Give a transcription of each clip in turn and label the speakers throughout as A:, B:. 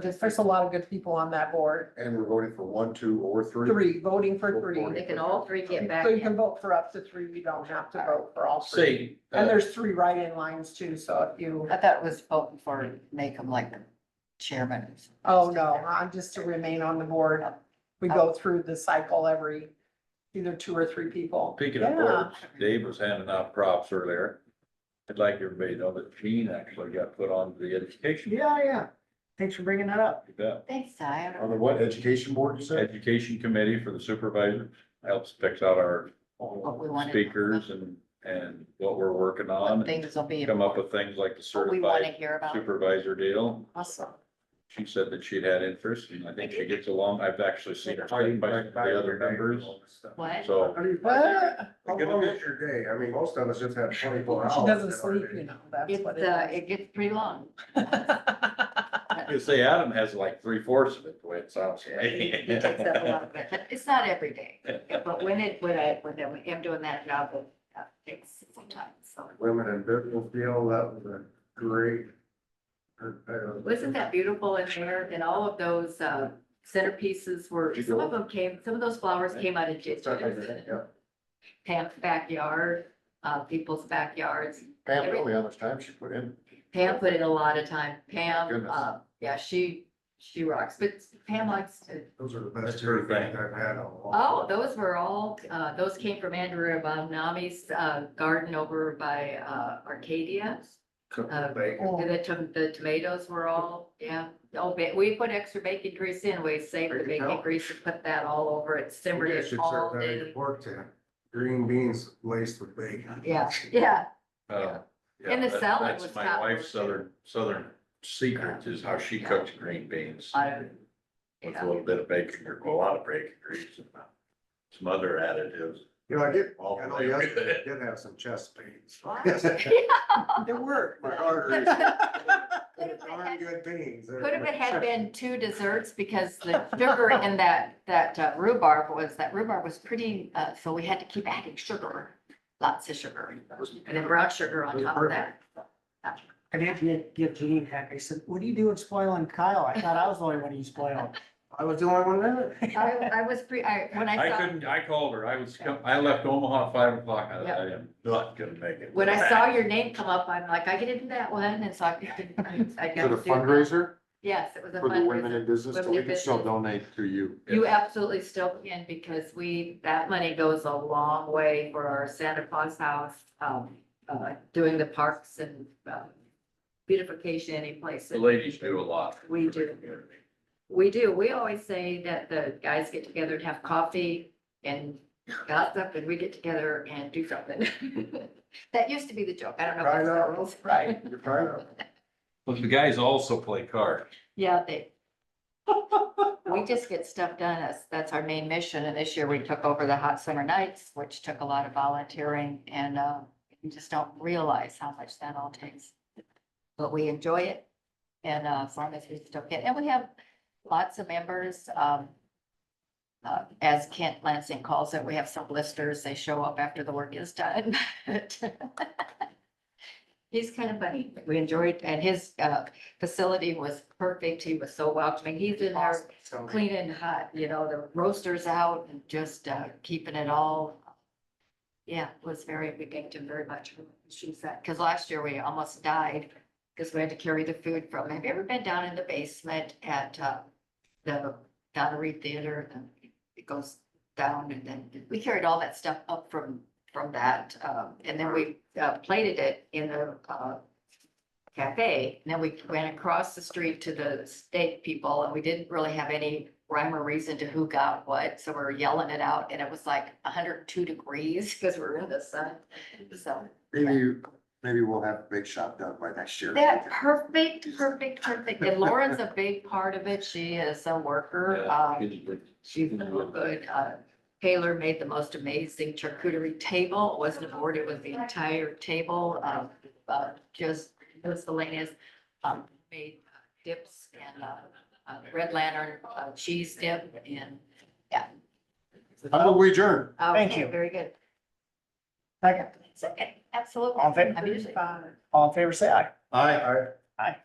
A: There's a lot of good people on that board,
B: And we're voting for one, two, or three?
A: three, voting for three.
C: They can all three get back
A: So you can
C: in.
A: vote for up to three, you don't have to vote for all three.
D: Say,
A: And
D: uh,
A: there's three write-in lines too, so if you,
E: I thought it was voting for, make them like chairman. or something.
A: oh no, I'm just to remain on the board. We go through the cycle every, either two or three people.
D: speaking of
A: Yeah.
D: boards, Dave was handing out props earlier. I'd like everybody to know that Gene actually got put on the education.
A: Yeah, yeah. Thanks for bringing that up.
D: You bet.
E: Thanks, Ty. I
B: On
E: don't-
B: the what, education board, you said?
D: Education committee for the supervisor helps picks out our
E: What we wanted.
D: speakers and, and what we're working on.
E: What
D: and
E: things will be.
D: Come up with things like the
E: What we want to
D: certified
E: hear about.
D: supervisor deal.
E: Awesome.
D: She said that she'd had interest and I think she gets along. I've actually seen her by the other members,
C: What?
D: so.
B: How do you find that?
A: What?
B: How long is your day? I mean, most of us just have twenty-four hours.
A: She doesn't
B: in our
A: sleep,
B: day.
A: you know, that's
E: It's,
A: what
E: uh,
A: it
E: it gets pretty long.
D: You say Adam has like three fourths of it, the way it sounds. to me.
E: He takes up a lot of it, but It's not every day, but when it, when I, when I am doing that job, it uh, takes some time, so.
B: Women in business deal, that was a great. uh, I- I don't-
C: Wasn't that beautiful in there? And all of those, uh, centerpieces were, some of them came, some of those flowers came out of ditches.
B: Yeah.
C: Pam's backyard, uh, people's backyards.
B: Pam, tell me how much time she put in.
C: Pam put in a lot of time. Pam,
B: Goodness.
C: uh, yeah, she, she rocks, but Pam likes to,
B: Those are the best
D: That's her
B: things
D: thing.
B: I've had all along.
C: oh, those were all, uh, those came from Andrew Abominami's, uh, garden over by, uh, Arcadia.
B: Cooked
C: uh,
B: bacon.
A: Oh.
C: And the tom- the tomatoes were all, yeah, oh, ba- we put extra bacon grease in, we saved the
B: There you
C: bacon
B: go.
C: grease and put that all over it,
B: You
C: simmered
B: guys
C: it
B: should
C: all
B: serve that at
C: day.
B: your Work to green beans laced with bacon.
C: Yeah, yeah,
D: Uh, yeah,
C: And the
D: that-
C: salad
D: that's
C: was
D: My
C: top
D: wife's
C: notch.
D: southern, southern secret is how she cooks green beans
C: I don't-
D: with
C: yeah.
D: a little bit of bacon, or a lot of bacon grease and uh, some other additives.
B: You know, I did,
D: All
B: I know
D: flavor.
B: yesterday, I did have some chest pains.
C: Wow.
A: is. There were.
B: My arteries.
C: Could've been-
B: Darn good beans.
C: Could have had been two desserts because the sugar in that, that uh, rhubarb was, that rhubarb was pretty, uh, so we had to keep adding sugar, lots of sugar. And then brown sugar on top of that.
F: I did get, get Jeanine heck. I said, what are you doing spoiling Kyle? I thought I was the only one you spoiled.
B: I was the only one there.
C: I, I was pre, I, when I
D: I
C: saw,
D: couldn't, I called her, I was, com- I left Omaha at five o'clock, I,
C: Yep.
D: I am not gonna make it.
C: when I saw your name come up, I'm like, I get into that one, and so I didn't, I
B: For the
C: got. to do that.
B: fundraiser
C: Yes, it was a
B: for the women
C: fundraiser.
B: in business, so
C: Women
B: we
C: in
B: can still
C: business.
B: donate to you.
C: You absolutely still can because we, that money goes a long way for our Santa Claus house, um, uh, doing the parks and, um, beautification any place.
D: The ladies do a lot.
C: We
D: for the
C: do.
D: community.
C: We do. We always say that the guys get together and have coffee and gossip and we get together and do something. That used to be the joke. I don't know. if
B: Right
C: it's
B: on.
C: still is.
A: Right.
B: You're trying to.
D: But the guys also play cards.
C: Yeah, they. We just get stuff done. That's, that's our main mission. And this year we took over the hot summer nights, which took a lot of volunteering and, uh, you just don't realize how much that all takes. But we enjoy it. And, uh, as long as we still get, and we have lots of members, um, uh, as Kent Lansing calls it, we have some blisters. They show up after the work is done. He's kind of funny. We enjoyed, and his, uh, facility was perfect. He was so welcoming. He's in there
B: So-
C: cleaning hot, you know, the roasters out and just uh, keeping it all. Yeah, it was very, we thanked him very much. She said, because last year we almost died because we had to carry the food from. Have you ever been down in the basement at uh, the Donnery Theater? And It goes down and then we carried all that stuff up from, from that. um, And then we uh, plated it in the uh, cafe. And then we went across the street to the state people and we didn't really have any rhyme or reason to who got what. So we were yelling it out and it was like hundred and two degrees because we were in the sun. So
B: Maybe, maybe we'll have a big shop done by next year.
C: that perfect, perfect, perfect. And Lauren's a big part of it. She is a worker. Um, She's so good. Uh, Taylor made the most amazing charcuterie table. It wasn't a board, it was the entire table. Um, uh, just miscellaneous, um, made dips and, uh, uh, red lantern, uh, cheese dip and, oh,
B: How about we adjourn?
F: Thank
C: okay,
F: you.
C: very good.
F: Second.
C: Second, absolutely.
F: All in favor?
C: I'm usually-
A: Five.
F: All in favor, say aye.
B: Aye.
F: Aye.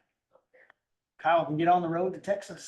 F: Kyle can get on the road to Texas.